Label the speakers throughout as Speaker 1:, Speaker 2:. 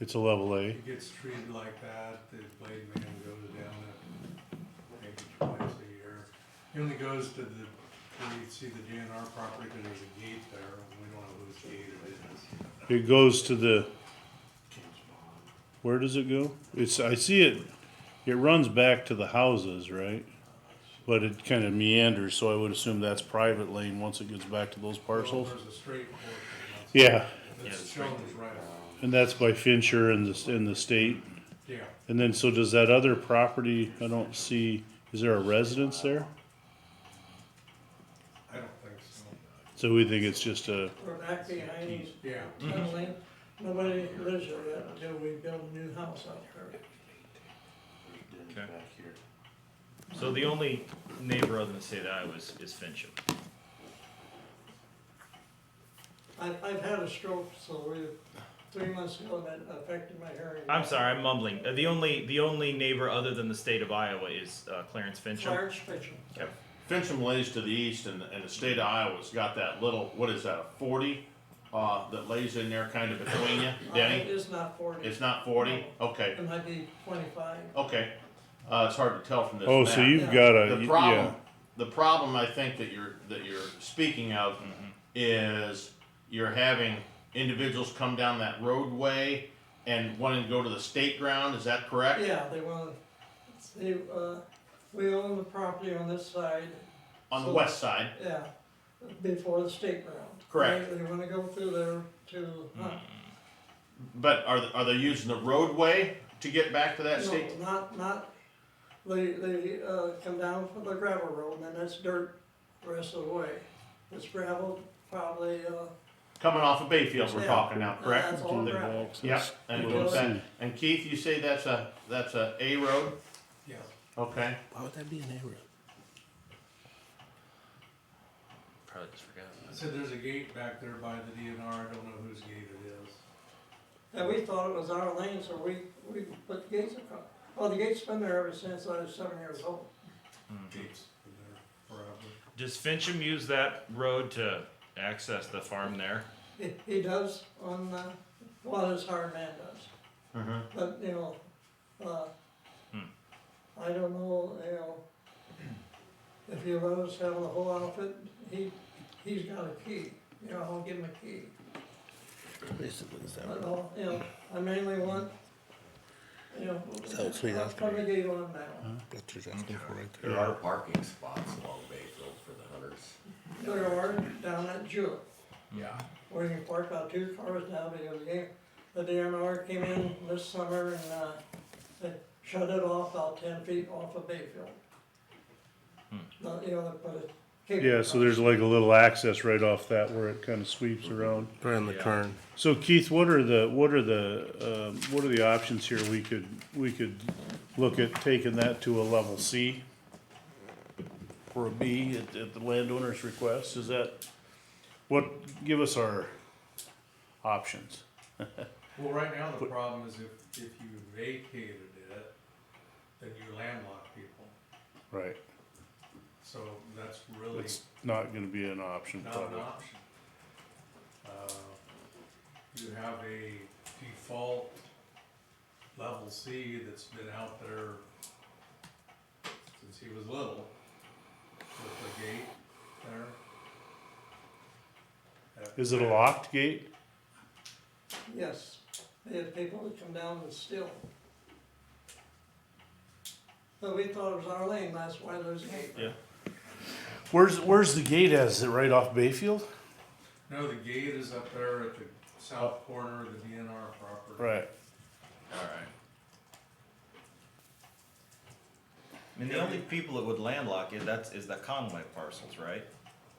Speaker 1: It's a level A.
Speaker 2: It gets treated like that, the blade man goes down it maybe twice a year. He only goes to the, where you see the DNR property, cause there's a gate there, and we don't know whose gate it is.
Speaker 1: It goes to the. Where does it go? It's I see it. It runs back to the houses, right? But it kind of meanders, so I would assume that's private lane once it gets back to those parcels.
Speaker 2: There's a straight portion.
Speaker 1: Yeah,
Speaker 2: That's shown as right,
Speaker 1: and that's by Fincher and the and the state.
Speaker 2: yeah,
Speaker 1: And then so does that other property? I don't see. Is there a residence there?
Speaker 2: I don't think so,
Speaker 1: So we think it's just a.
Speaker 3: We're back behind these
Speaker 2: yeah.
Speaker 3: tunneling, nobody lives there yet until we build a new house out there.
Speaker 4: So the only neighbor other than St. I was is Fincham.
Speaker 3: I, I've had a stroke, so we, three months ago, and that affected my hearing.
Speaker 4: I'm sorry, I'm mumbling. Uh, The only the only neighbor other than the state of Iowa is uh, Clarence Fincham.
Speaker 3: Fire special.
Speaker 4: Okay.
Speaker 5: Fincham lays to the east, and, and the state of Iowa's got that little, what is that, a 40 uh, that lays in there kind of between you, Denny?
Speaker 3: It's Uh, not forty,
Speaker 5: It's not 40? Okay.
Speaker 3: it might be twenty-five.
Speaker 5: Okay. Uh, it's hard to tell from this.
Speaker 1: Oh,
Speaker 5: map.
Speaker 1: so you've got a
Speaker 5: the problem.
Speaker 1: yeah.
Speaker 5: The problem I think that you're that you're speaking of is you're having individuals come down that roadway and wanting to go to the state ground. Is that correct?
Speaker 3: Yeah, they want, they, uh, we own the property on this side,
Speaker 5: On the
Speaker 3: So-
Speaker 5: west side.
Speaker 3: yeah, before the state ground.
Speaker 5: Correct.
Speaker 3: They, they wanna go through there to, huh,
Speaker 5: But are are they using the roadway to get back to that
Speaker 3: No,
Speaker 5: state?
Speaker 3: not, not, they, they, uh, come down from the gravel road, and that's dirt the rest of the way. It's gravel, probably, uh,
Speaker 5: Coming off of Bayfield, we're
Speaker 3: Yeah.
Speaker 5: talking now, correct?
Speaker 1: Uh,
Speaker 3: That's all gravel.
Speaker 5: Yep. And, it goes back. and Keith, you say that's a that's a A road.
Speaker 2: Yeah,
Speaker 5: Okay.
Speaker 6: Why would that be an error?
Speaker 4: Probably just forgot.
Speaker 2: I said there's a gate back there by the DNR, I don't know whose gate it is.
Speaker 3: and we thought it was our lane, so we, we put the gates across. Well, the gate's been there ever since I was seven years old.
Speaker 2: Gates been there forever.
Speaker 4: Does Fincham use that road to access the farm there?
Speaker 3: He, he does on, uh, well, his hard man does,
Speaker 6: Mm-hmm.
Speaker 5: Mhm.
Speaker 3: but, you know, uh, I don't know, you know, if he let us have the whole outfit, he, he's got a key, you know, I'll give him a key.
Speaker 6: Basically, is that
Speaker 3: But, I'll- you know, I mainly want, you know,
Speaker 6: So, so he's
Speaker 3: I'll
Speaker 6: asking
Speaker 3: put the
Speaker 6: me.
Speaker 3: gate on now.
Speaker 6: That's what he's asking for right there.
Speaker 7: There are parking spots along Bayfield for the hunters.
Speaker 3: There are down at Jewett,
Speaker 4: Hmm.
Speaker 7: Yeah.
Speaker 3: where you can park about two cars now because the, the DNR came in this summer and, uh, they shut it off about ten feet off of Bayfield. But, you know, they put a. cable
Speaker 1: Yeah, so
Speaker 3: across.
Speaker 1: there's like a little access right off that where it kind of sweeps around.
Speaker 6: Around the
Speaker 4: Yeah.
Speaker 6: turn.
Speaker 1: So Keith, what are the, what are the, um, what are the options here? We could, we could look at taking that to a level C? Or a B at, at the landowner's request, is that, what, give us our options.
Speaker 2: Well, right now, the problem is if, if you vacated it, then you landlock people,
Speaker 1: Right.
Speaker 2: so that's really
Speaker 1: It's not gonna be an option
Speaker 2: not an
Speaker 1: probably.
Speaker 2: option. Uh, You have a default level C that's been out there since he was little, with the gate there.
Speaker 1: Is it a locked gate?
Speaker 3: Yes, they had people that come down and steal. But we thought it was our lane, that's why there's a gate.
Speaker 4: Yeah.
Speaker 1: Where's, where's the gate at? Is it right off Bayfield?
Speaker 2: No, the gate is up there at the south corner of the DNR property.
Speaker 1: Right.
Speaker 4: All right. I mean, the only people that would landlock it that's is the Conway parcels, right?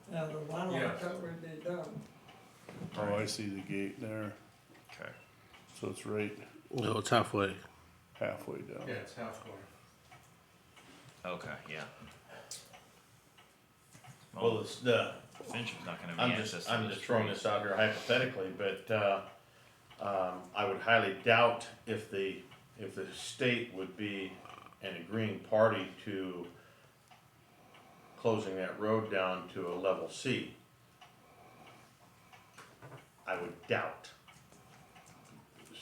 Speaker 3: Now, the vinyl
Speaker 2: Yeah.
Speaker 3: would be done.
Speaker 1: Oh, I see the gate there,
Speaker 4: Okay.
Speaker 1: so it's right
Speaker 6: No, it's halfway.
Speaker 1: halfway down.
Speaker 2: Yeah, it's halfway.
Speaker 4: Okay. Yeah.
Speaker 5: Well,
Speaker 4: Well,
Speaker 5: it's the
Speaker 4: Fincham's not going to be
Speaker 5: I'm
Speaker 4: access.
Speaker 5: just,
Speaker 4: to
Speaker 5: I'm
Speaker 4: the
Speaker 5: just throwing
Speaker 4: street.
Speaker 5: this out here hypothetically, but, uh, um, I would highly doubt if the, if the state would be an agreeing party to closing that road down to a level C. I would doubt.